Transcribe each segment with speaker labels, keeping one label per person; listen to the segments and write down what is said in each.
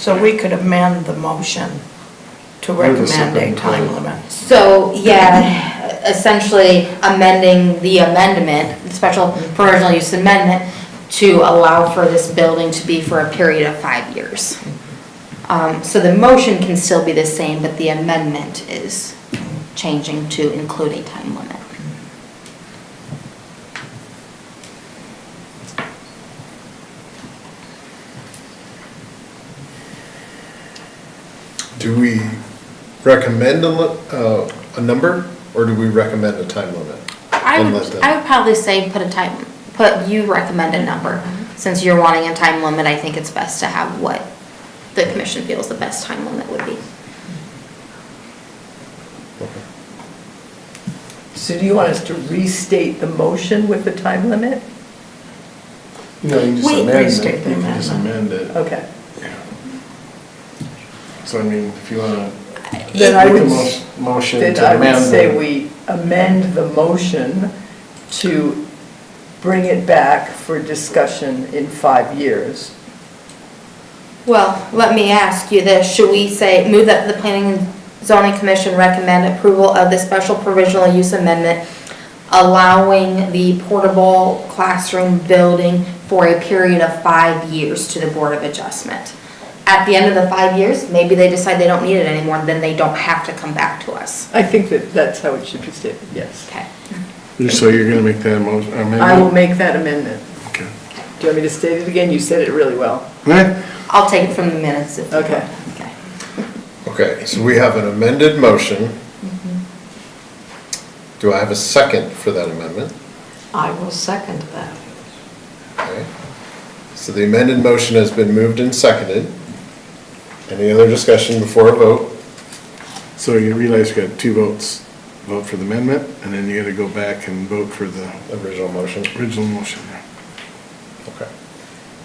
Speaker 1: So we could amend the motion to
Speaker 2: You're the
Speaker 1: recommend a
Speaker 2: second,
Speaker 1: time
Speaker 2: right.
Speaker 1: limit.
Speaker 3: So, yeah, essentially amending the amendment, the special provisional use amendment, to allow for this building to be for a period of five years. Um, So the motion can still be the same, but the amendment is changing to include a time limit.
Speaker 2: Do we recommend a, li- uh, a number, or do we recommend a time limit?
Speaker 3: I
Speaker 2: And let
Speaker 3: would,
Speaker 2: them-
Speaker 3: I would probably say put a time, put, you recommend a number. Since you're wanting a time limit, I think it's best to have what the commission feels the best time limit would be.
Speaker 2: Okay.
Speaker 4: So do you want us to restate the motion with the time limit?
Speaker 2: No, you can just
Speaker 1: Wait,
Speaker 2: amend
Speaker 1: restate
Speaker 2: it.
Speaker 1: the
Speaker 2: You can just amend
Speaker 1: amendment.
Speaker 2: it.
Speaker 4: Okay.
Speaker 2: So I mean, if you wanna
Speaker 4: Then I
Speaker 2: make a
Speaker 4: would-
Speaker 2: mo- motion to amend.
Speaker 4: Then I would say
Speaker 2: the-
Speaker 4: we amend the motion to bring it back for discussion in five years.
Speaker 3: Well, let me ask you this, should we say, move that the planning and zoning commission recommend approval of the special provisional use amendment allowing the portable classroom building for a period of five years to the Board of Adjustment? At the end of the five years, maybe they decide they don't need it anymore, then they don't have to come back to us.
Speaker 4: I think that that's how it should be stated, yes.
Speaker 3: Okay.
Speaker 5: So you're gonna make that motion,
Speaker 4: I will
Speaker 5: amendment?
Speaker 4: make that amendment.
Speaker 5: Okay.
Speaker 4: Do you want me to state it again? You said it really well.
Speaker 5: Eh,
Speaker 3: I'll take it from the minutes if you want.
Speaker 4: Okay.
Speaker 3: Okay.
Speaker 2: Okay, so we have an amended motion.
Speaker 3: Mm-hmm.
Speaker 2: Do I have a second for that amendment?
Speaker 1: I will second that.
Speaker 2: Okay. So the amended motion has been moved and seconded. Any other discussion before a vote?
Speaker 5: So you realize you got two votes, vote for the amendment, and then you gotta go back and vote for the
Speaker 2: Original motion.
Speaker 5: original motion there.
Speaker 2: Okay.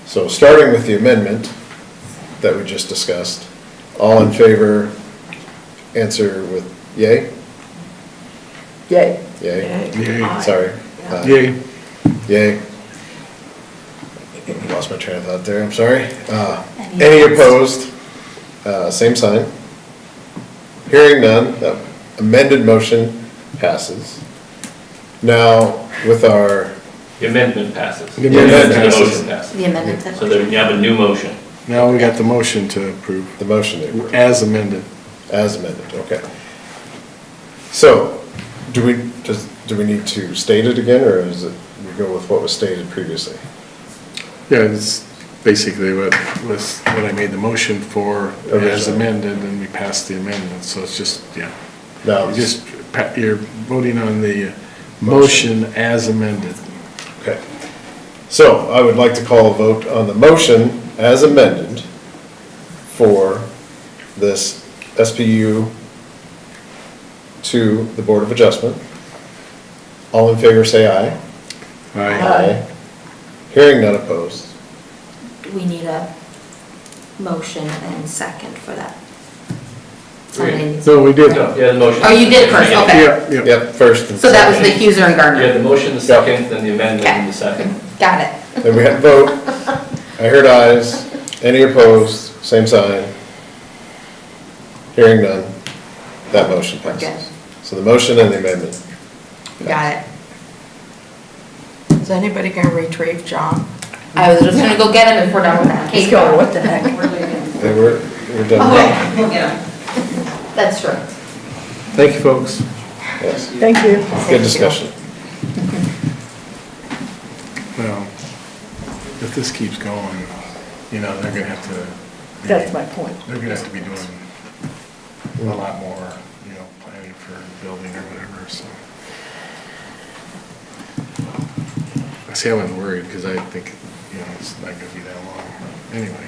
Speaker 2: So starting with the amendment that we just discussed, all in favor, answer with yay?
Speaker 4: Yay.
Speaker 2: Yay?
Speaker 5: Yay.
Speaker 1: Aye.
Speaker 2: Sorry. Aye.
Speaker 5: Yay,
Speaker 2: Yay. Lost my train of thought there, I'm sorry. Uh, Any opposed? Uh, Same sign. Hearing none, the amended motion passes. Now, with our,
Speaker 6: The amendment passes.
Speaker 5: The amendment
Speaker 2: Yeah,
Speaker 6: The
Speaker 2: passes.
Speaker 6: motion passes.
Speaker 3: The amendment.
Speaker 6: So there, you have a new motion.
Speaker 5: now we got the motion to approve,
Speaker 2: the motion that we're-
Speaker 5: as amended.
Speaker 2: as amended, okay. So, do we, does, do we need to state it again, or is it, we go with what was stated previously?
Speaker 5: Yeah, it's basically what was, what I made the motion for, as
Speaker 2: Originally.
Speaker 5: amended, and we passed the amendment, so it's just, yeah.
Speaker 2: Now,
Speaker 5: You Just, pa- you're voting on the motion as amended.
Speaker 2: Okay. So I would like to call a vote on the motion as amended for this SPU to the Board of Adjustment. All in favor, say aye.
Speaker 4: Aye.
Speaker 2: Hearing none opposed.
Speaker 3: We need a motion and second for that.
Speaker 6: Three.
Speaker 3: Somebody needs-
Speaker 5: No, we did.
Speaker 6: No, yeah, the motion.
Speaker 3: Oh, you did first, okay.
Speaker 5: Yeah, yeah.
Speaker 2: Yep, first and
Speaker 3: So that was
Speaker 2: second.
Speaker 3: the Huser and
Speaker 6: You had the
Speaker 3: Gardner.
Speaker 6: motion, the second, then the amendment,
Speaker 3: Okay.
Speaker 6: and the second.
Speaker 3: Got it.
Speaker 2: Then we had a vote. I heard ayes. Any opposed? Same sign. Hearing none. That motion
Speaker 3: We're good.
Speaker 2: passes. So the motion and the amendment.
Speaker 3: Got it.
Speaker 1: Is anybody gonna retrieve John?
Speaker 3: I was just gonna go get him if we're done with that.
Speaker 4: He's going, what the heck?
Speaker 2: Okay, we're, we're done.
Speaker 3: Okay, we'll get him. That's true.
Speaker 5: Thank you, folks.
Speaker 2: Yes.
Speaker 4: Thank you.
Speaker 2: Good discussion.
Speaker 5: Well, if this keeps going, you know, they're gonna have to.
Speaker 4: That's my point.
Speaker 5: They're gonna have to be doing a lot more, you know, planning for building or whatever, so. I see I wasn't worried, because I think, you know, it's not gonna be that long, but anyway.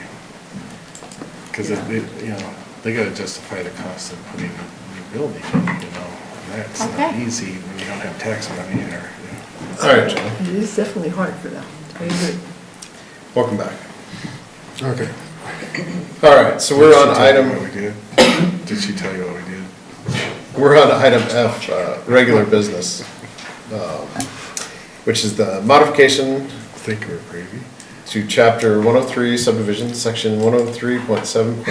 Speaker 5: Because it, it, you know, they gotta justify the cost of putting a new building, you know, and that's not
Speaker 3: Okay.
Speaker 5: easy when you don't have tax money or, you know.
Speaker 2: All right, John,
Speaker 4: It is definitely hard for them. I agree.
Speaker 2: welcome back.
Speaker 5: Okay.
Speaker 2: All right, so we're on item,
Speaker 5: Did she tell you what we did?
Speaker 2: we're on item F, uh, regular business, um, which is the modification
Speaker 5: Think we're crazy?
Speaker 2: to chapter one oh three subdivision, section one oh three point seven